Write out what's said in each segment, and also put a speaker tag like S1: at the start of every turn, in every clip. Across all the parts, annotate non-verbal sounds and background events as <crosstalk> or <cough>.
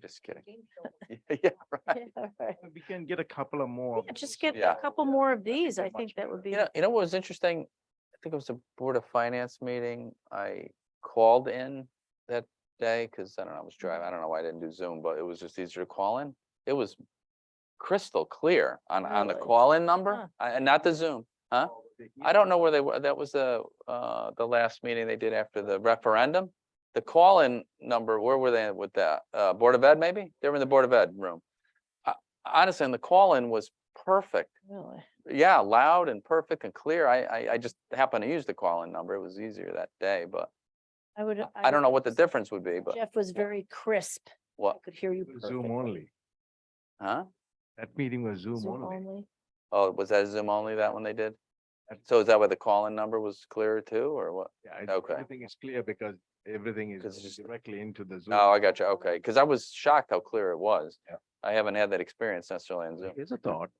S1: Just kidding. <laughs> Yeah, right.
S2: We can get a couple of more.
S3: Yeah, Just get
S1: Yeah.
S3: a couple more of these. I
S2: Much
S3: think that would be,
S1: You know, you know what was interesting? I think it was a Board of Finance meeting. I called in that day because I don't know, I was
S3: Mm-hmm.
S1: driving. I don't know why I didn't do Zoom, but it was just easier to call in. It was crystal clear on, on the
S3: Really?
S1: call-in
S3: Huh.
S1: number, uh, and not the Zoom. Huh? I don't know where they were. That was the, uh, the last meeting they did after the referendum. The call-in number, where were they with that? Uh, Board of Ed, maybe? They were in the Board of Ed room. Uh, Honestly, and the call-in was perfect.
S3: really,
S1: Yeah, loud and perfect and clear. I, I, I just happened to use the call-in number. It was easier that day, but
S3: I would.
S1: I- I don't
S3: would-
S1: know what the difference would be, but
S3: Jeff was very crisp. I
S1: what,
S3: could hear you.
S2: Zoom
S3: perfectly.
S2: only.
S1: huh?
S2: That meeting was Zoom
S3: Zoom
S2: only. <laughs>
S3: only.
S1: Oh, was that Zoom only that one they did?
S2: That-
S1: So is that why the call-in number was clearer too, or what?
S2: Yeah, I-
S1: Okay.
S2: Everything is clear because everything is
S1: 'Cause it's
S2: going
S1: just-
S2: directly into the Zoom.
S1: Oh, I got you. Okay, because I was shocked how clear it was.
S2: Yeah.
S1: I haven't had that experience necessarily on Zoom.
S2: Here's a thought.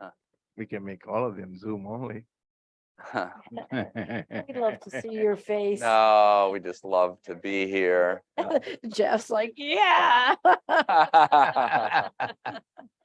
S1: Huh.
S2: We can make all of them Zoom only.
S3: <laughs>
S1: <laughs>
S3: We'd love to
S2: <laughs>
S3: see your face.
S1: No, we just love to be here.
S3: <laughs> Jeff's like, yeah. <laughs>
S1: <laughs>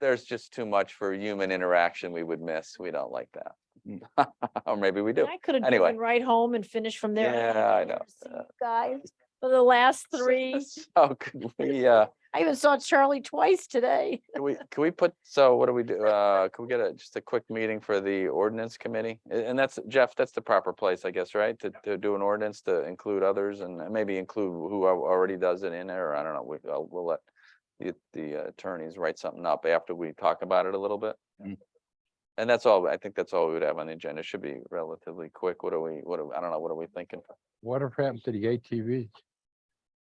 S1: There's just too much for human interaction we would miss. We don't like that. <laughs> Or maybe we do.
S3: I could have
S1: Anyway.
S3: driven right home and finished from there.
S1: Yeah, I know.
S3: See you Guys, for
S1: <laughs>
S3: the last three.
S1: Oh, could we, uh,
S3: I even saw Charlie twice
S2: <laughs>
S3: today.
S1: can we, can we put, so what do we do? Uh, can we get a, just a quick meeting for the ordinance committee? A- And that's, Jeff, that's the proper place, I guess, right? To, to do an ordinance to include others and maybe include who al- already does it in there, or I don't know, we, uh, we'll let the- the attorneys write something up after we talk about it a little bit.
S2: Mm.
S1: And that's all, I think that's all we would have on the agenda. Should be relatively quick. What are we, what are, I don't know, what are we thinking?
S4: Whatever happened to the ATV?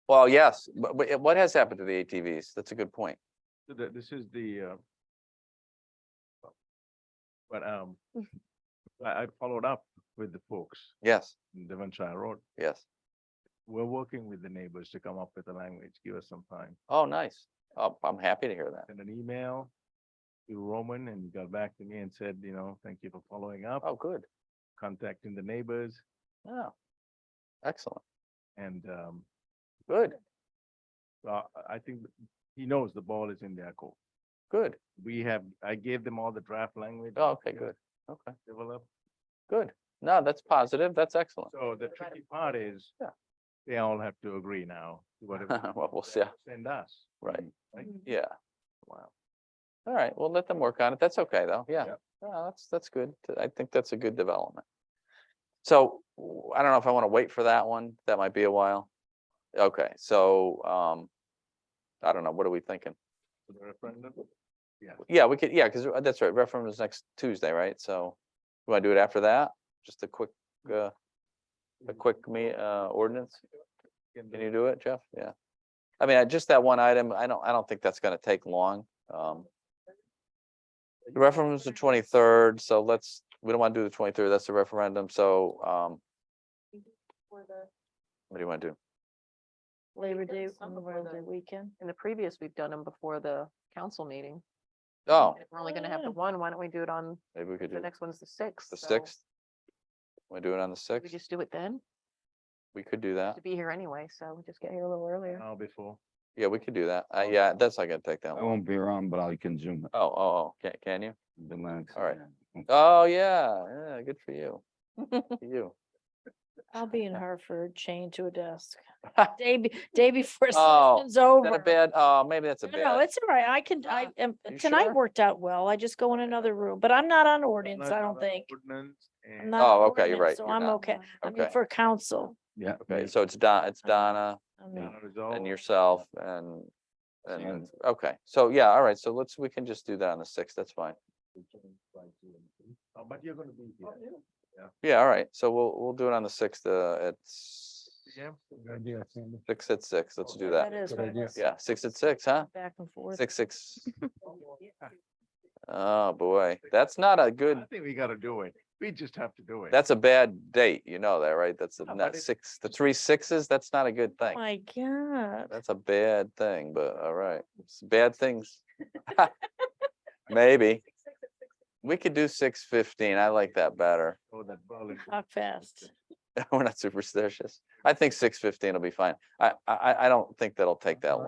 S1: Well, yes, but, but what has happened to the ATVs? That's a good point.
S2: So the- This is the, uh, but, um,
S3: Mm.
S2: I, I followed up with the folks
S1: Yes,
S2: in Devonshire Road.
S1: yes.
S2: We're working with the neighbors to come up with a language. Give us some time.
S1: Oh, nice. Oh, I'm happy to hear that.
S2: Sent an email to Roman and he got back to me and said, you know, thank you for following up,
S1: Oh, good.
S2: contacting the neighbors
S1: Oh, excellent.
S2: and, um,
S1: Good,
S2: uh, I think he knows the ball is in their court.
S1: good.
S2: We have, I gave them all the draft language.
S1: Oh, okay, good. Okay,
S2: Developed.
S1: good. No, that's positive. That's excellent.
S2: So the
S3: Right.
S2: tricky part is
S1: Yeah.
S2: they all have to agree now
S1: <laughs>
S2: to whatever
S1: Well, we'll see.
S2: they send us.
S1: Right,
S2: Right?
S3: Mm,
S1: yeah.
S2: Mm-hmm. Wow.
S1: All right, we'll let them work on it. That's okay, though. Yeah.
S2: Yep.
S1: No, that's, that's good. Th- I think that's a good development. So w- I don't know if I want to wait for that one. That might be a while. Okay, so, um, I don't know. What are we thinking?
S2: So the referendum. Yeah.
S1: Yeah, we could, yeah, because that's right, referendum is next Tuesday, right? So you want to do it after that? Just a quick,
S2: Mm-hmm.
S1: uh, a quick me, uh, ordinance? Can you do it, Jeff? Yeah. I mean, I- just that one item, I don't, I don't think that's gonna take long. Um. The referendum's the twenty-third, so let's, we don't wanna do the twenty-third, that's the referendum, so, um,
S5: for the.
S1: what do you wanna do?
S3: Labor
S5: did
S3: Day,
S5: some before
S3: Memorial Day
S5: the-
S3: weekend.
S5: In the previous, we've done them before the council meeting.
S1: Oh,
S5: If We're only gonna have
S3: Yeah.
S5: the one, why don't we do it on,
S1: maybe we could
S5: the
S1: do
S5: next one's the sixth.
S1: the
S5: so
S1: sixth. We do it on the
S5: We
S1: sixth,
S5: just do it then,
S1: we could do that,
S5: to be here anyway, so we just get here a little earlier.
S2: Now before.
S1: yeah, we could do that, uh, yeah, that's not gonna take
S4: I
S1: that long.
S4: won't be around, but I'll consume it.
S1: Oh, oh, oh, can, can you?
S4: The Lennox.
S1: All right.
S4: Okay.
S1: Oh, yeah, yeah, good for you. <laughs> Good for You.
S3: I'll be
S2: <laughs>
S3: in Hartford chained to
S1: <laughs>
S3: a desk. Day, be- day before
S1: Oh,
S3: session's
S1: Is that a
S3: over.
S1: bad, oh, maybe that's a
S3: No, no,
S1: bad,
S3: it's all right. I can, I,
S1: Uh,
S3: am-
S1: you
S3: tonight
S1: sure?
S3: worked out well. I just go in another room, but I'm not on ordinance,
S2: Not
S3: I don't
S2: another
S3: think.
S2: ordinance
S3: I'm
S2: and-
S3: not on
S1: Oh, okay, you're
S3: ordinance,
S1: right,
S3: So
S1: you're
S3: I'm
S1: not.
S3: okay. I mean,
S1: okay,
S3: for council.
S4: Yeah.
S1: okay, so it's Don, it's Donna.
S3: I mean,
S2: not resolved.
S1: and yourself and,
S4: So
S1: and,
S4: yeah.
S1: then- okay, so yeah, all right, so let's, we can just do that on the sixth, that's fine.
S2: Oh, But you're gonna be here.
S1: Yeah, all right, so we'll, we'll do it on the sixth, uh, at s-
S2: Yeah.
S1: six at six, let's do
S3: That
S1: that.
S3: is
S4: Good
S3: what it
S4: idea.
S3: is.
S1: Yeah, six at six, huh?
S3: Back and forth.
S1: Six, six. Oh, boy, that's not a
S2: I
S1: good,
S2: think we gotta do it. We just have to do it.
S1: that's a bad date, you know that, right? That's
S2: Yeah,
S1: not
S2: but it-
S1: six, the three sixes, that's not a good thing.
S3: My God.
S1: That's a bad thing, but all right, it's bad things. <laughs> Maybe. We could do six fifteen, I like that better.
S2: Oh, that ball is-
S3: Talk fast.
S1: <laughs> We're not superstitious. I think six fifteen will be fine. I, I, I- I don't think that'll take that long.